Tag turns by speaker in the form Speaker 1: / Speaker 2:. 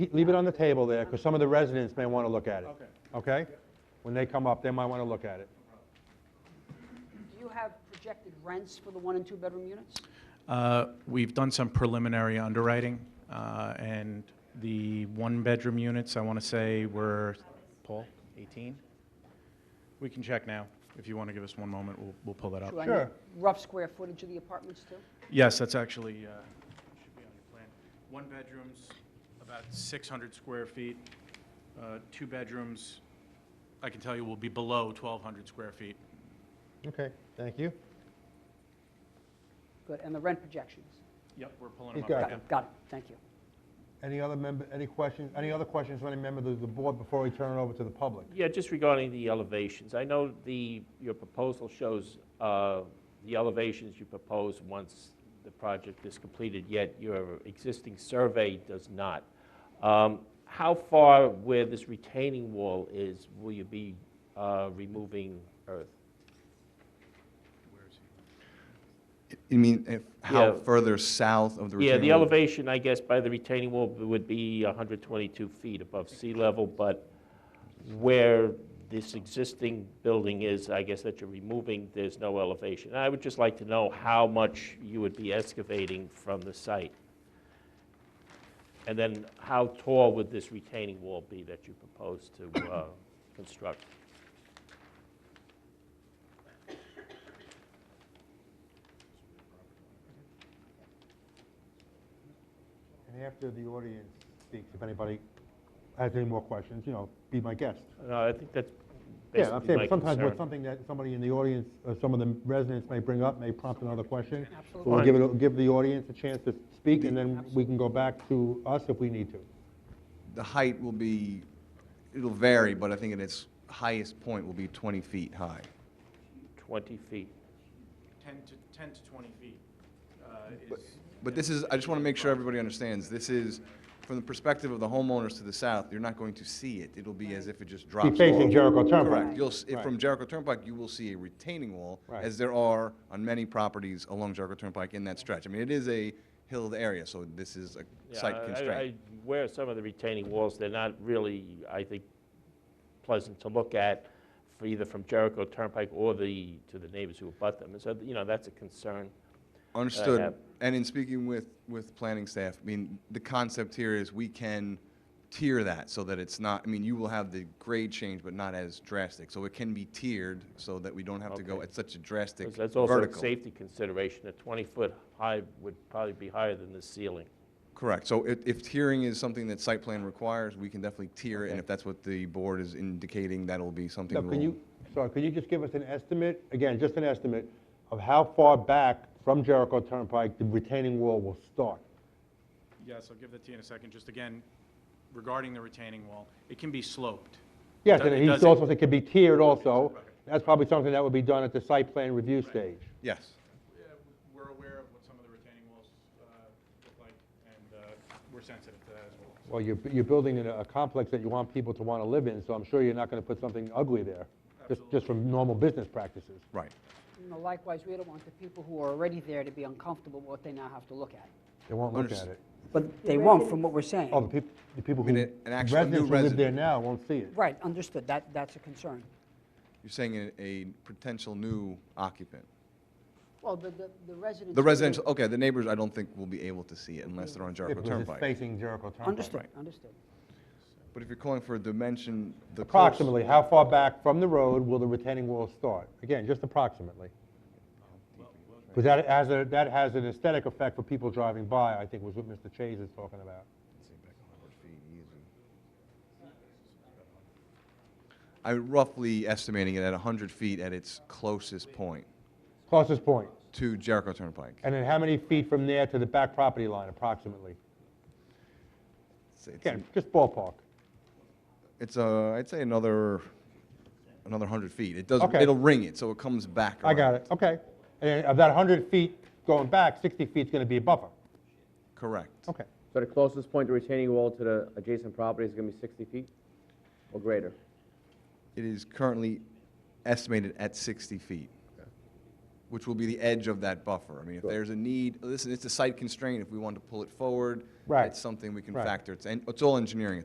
Speaker 1: Leave it on the table there, because some of the residents may want to look at it.
Speaker 2: Okay.
Speaker 1: Okay? When they come up, they might want to look at it.
Speaker 3: Do you have projected rents for the one and two-bedroom units?
Speaker 4: Uh, We've done some preliminary underwriting, uh, and the one-bedroom units, I want to say, were, Paul, 18? We can check now. If you want to give us one moment, we'll we'll pull that up.
Speaker 3: Should I know
Speaker 1: Sure.
Speaker 3: Rough square footage of the apartments, too?
Speaker 4: Yes, that's actually, uh, should be on your plan. One bedroom's about 600 square feet. Uh, Two bedrooms, I can tell you, will be below 1,200 square feet.
Speaker 1: Okay, thank you.
Speaker 3: Good, and the rent projections?
Speaker 4: Yep, we're pulling
Speaker 1: He's
Speaker 4: them up.
Speaker 1: got
Speaker 4: right
Speaker 3: Got
Speaker 1: Okay.
Speaker 3: it, got it, thank you.
Speaker 1: Any other member, any questions, any other questions from any member of the board before we turn it over to the public?
Speaker 5: Yeah, just regarding the elevations, I know the, your proposal shows uh, the elevations you propose once the project is completed, yet your existing survey does not. Um, How far where this retaining wall is, will you be uh, removing earth?
Speaker 6: You mean if, how
Speaker 5: Yeah.
Speaker 6: further south of the retaining
Speaker 5: Yeah, the
Speaker 6: wall?
Speaker 5: elevation, I guess, by the retaining wall would be 122 feet above sea level, but where this existing building is, I guess that you're removing, there's no elevation. And I would just like to know how much you would be excavating from the site. And then how tall would this retaining wall be that you propose to uh, construct?
Speaker 1: And after the audience speaks, if anybody has any more questions, you know, be my guest.
Speaker 5: No, I think that's
Speaker 1: Yeah, I'm
Speaker 5: basically my
Speaker 1: saying sometimes with
Speaker 5: concern.
Speaker 1: something that somebody in the audience, or some of the residents may bring up, may prompt another question.
Speaker 3: Absolutely.
Speaker 1: But We'll give it, give the audience a chance to speak, and then we can go back to us if we need to.
Speaker 6: The height will be, it'll vary, but I think at its highest point will be 20 feet high.
Speaker 5: 20 feet.
Speaker 4: 10 to, 10 to 20 feet uh, is...
Speaker 6: But this is, I just want to make sure everybody understands, this is, from the perspective of the homeowners to the south, you're not going to see it. It'll be as if it just drops
Speaker 1: Be
Speaker 6: off.
Speaker 1: facing Jericho
Speaker 6: Correct.
Speaker 1: Turnpike.
Speaker 6: You'll, s-
Speaker 1: Right.
Speaker 6: from Jericho Turnpike, you will see a retaining wall,
Speaker 1: Right.
Speaker 6: as there are on many properties along Jericho Turnpike in that stretch. I mean, it is a hilled area, so this is a
Speaker 5: Yeah,
Speaker 6: site
Speaker 5: I-
Speaker 6: constraint.
Speaker 5: I- I Where some of the retaining walls, they're not really, I think, pleasant to look at, for either from Jericho Turnpike or the, to the neighbors who abut them. And so, you know, that's a concern. have-
Speaker 6: Understood. And in speaking with, with planning staff, I mean, the concept here is we can tier that so that it's not, I mean, you will have the grade change, but not as drastic. So it can be tiered so that we don't have to go
Speaker 5: Okay.
Speaker 6: at such a drastic
Speaker 5: 'Cause That's also a
Speaker 6: vertical.
Speaker 5: safety consideration. A 20-foot high would probably be higher than the ceiling.
Speaker 6: Correct. So if, if tiering is something that site plan requires, we can definitely tier it. And if that's what the board is indicating, that'll be something
Speaker 1: Now, can
Speaker 6: we'll.
Speaker 1: you, sorry, can you just give us an estimate, again, just an estimate, of how far back from Jericho Turnpike the retaining wall will start?
Speaker 4: Yes, I'll give that to you in a second. Just again, regarding the retaining wall, it can be sloped.
Speaker 1: Yes,
Speaker 4: It
Speaker 1: and
Speaker 4: do- it
Speaker 1: he
Speaker 4: doesn't-
Speaker 1: also said it could be tiered also. That's probably something that would be done at the site plan review stage.
Speaker 6: Yes.
Speaker 4: Yeah, We're aware of what some of the retaining walls uh, look like, and uh, we're sensitive to that as well. So,
Speaker 1: Well, you're, you're building in a a complex that you want people to want to live in, so I'm sure you're not going to put something ugly there, just, just from normal business practices.
Speaker 6: Right.
Speaker 3: You know, likewise, we don't want the people who are already there to be uncomfortable with what they now have to look at.
Speaker 1: They won't look at
Speaker 6: Understood.
Speaker 1: it.
Speaker 3: But they won't, from what we're saying.
Speaker 1: Oh, the people, the people who,
Speaker 6: mean, an actual
Speaker 1: residents who
Speaker 6: new
Speaker 1: live there
Speaker 6: resident.
Speaker 1: now won't see it.
Speaker 3: Right, understood, that, that's a concern.
Speaker 6: You're saying a, a potential new occupant.
Speaker 3: Well, the, the the residents.
Speaker 6: The residential, okay, the neighbors, I don't think will be able to see it unless they're on
Speaker 1: If
Speaker 6: Jericho
Speaker 1: it was
Speaker 6: Turnpike.
Speaker 1: facing Jericho Turnpike.
Speaker 3: Understood, understood.
Speaker 6: But if you're calling for a dimension, the. close-
Speaker 1: Approximately, how far back from the road will the retaining wall start? Again, just approximately. Because that has a, that has an aesthetic effect for people driving by, I think was what Mr. Chase is talking about.
Speaker 6: I roughly estimating it at 100 feet at its closest point
Speaker 1: Closest point.
Speaker 6: to Jericho Turnpike.
Speaker 1: And then how many feet from there to the back property line approximately?
Speaker 6: It's- it's-
Speaker 1: Again, just ballpark.
Speaker 6: It's, uh, I'd say another, another 100 feet. It does,
Speaker 1: Okay.
Speaker 6: it'll ring it, so it comes back
Speaker 1: I got
Speaker 6: around.
Speaker 1: it, okay. And then of that 100 feet going back, 60 feet's going to be a buffer.
Speaker 6: Correct.
Speaker 1: Okay.
Speaker 7: So the closest point to retaining wall to the adjacent property is going to be 60 feet or greater?
Speaker 6: It is currently estimated at 60 feet. which will be the edge of that buffer. I mean, if there's a need, listen, it's a site constraint, if we want to pull it forward,
Speaker 1: Right.
Speaker 6: it's something we can
Speaker 1: Right.
Speaker 6: factor. It's, en- it's all engineering at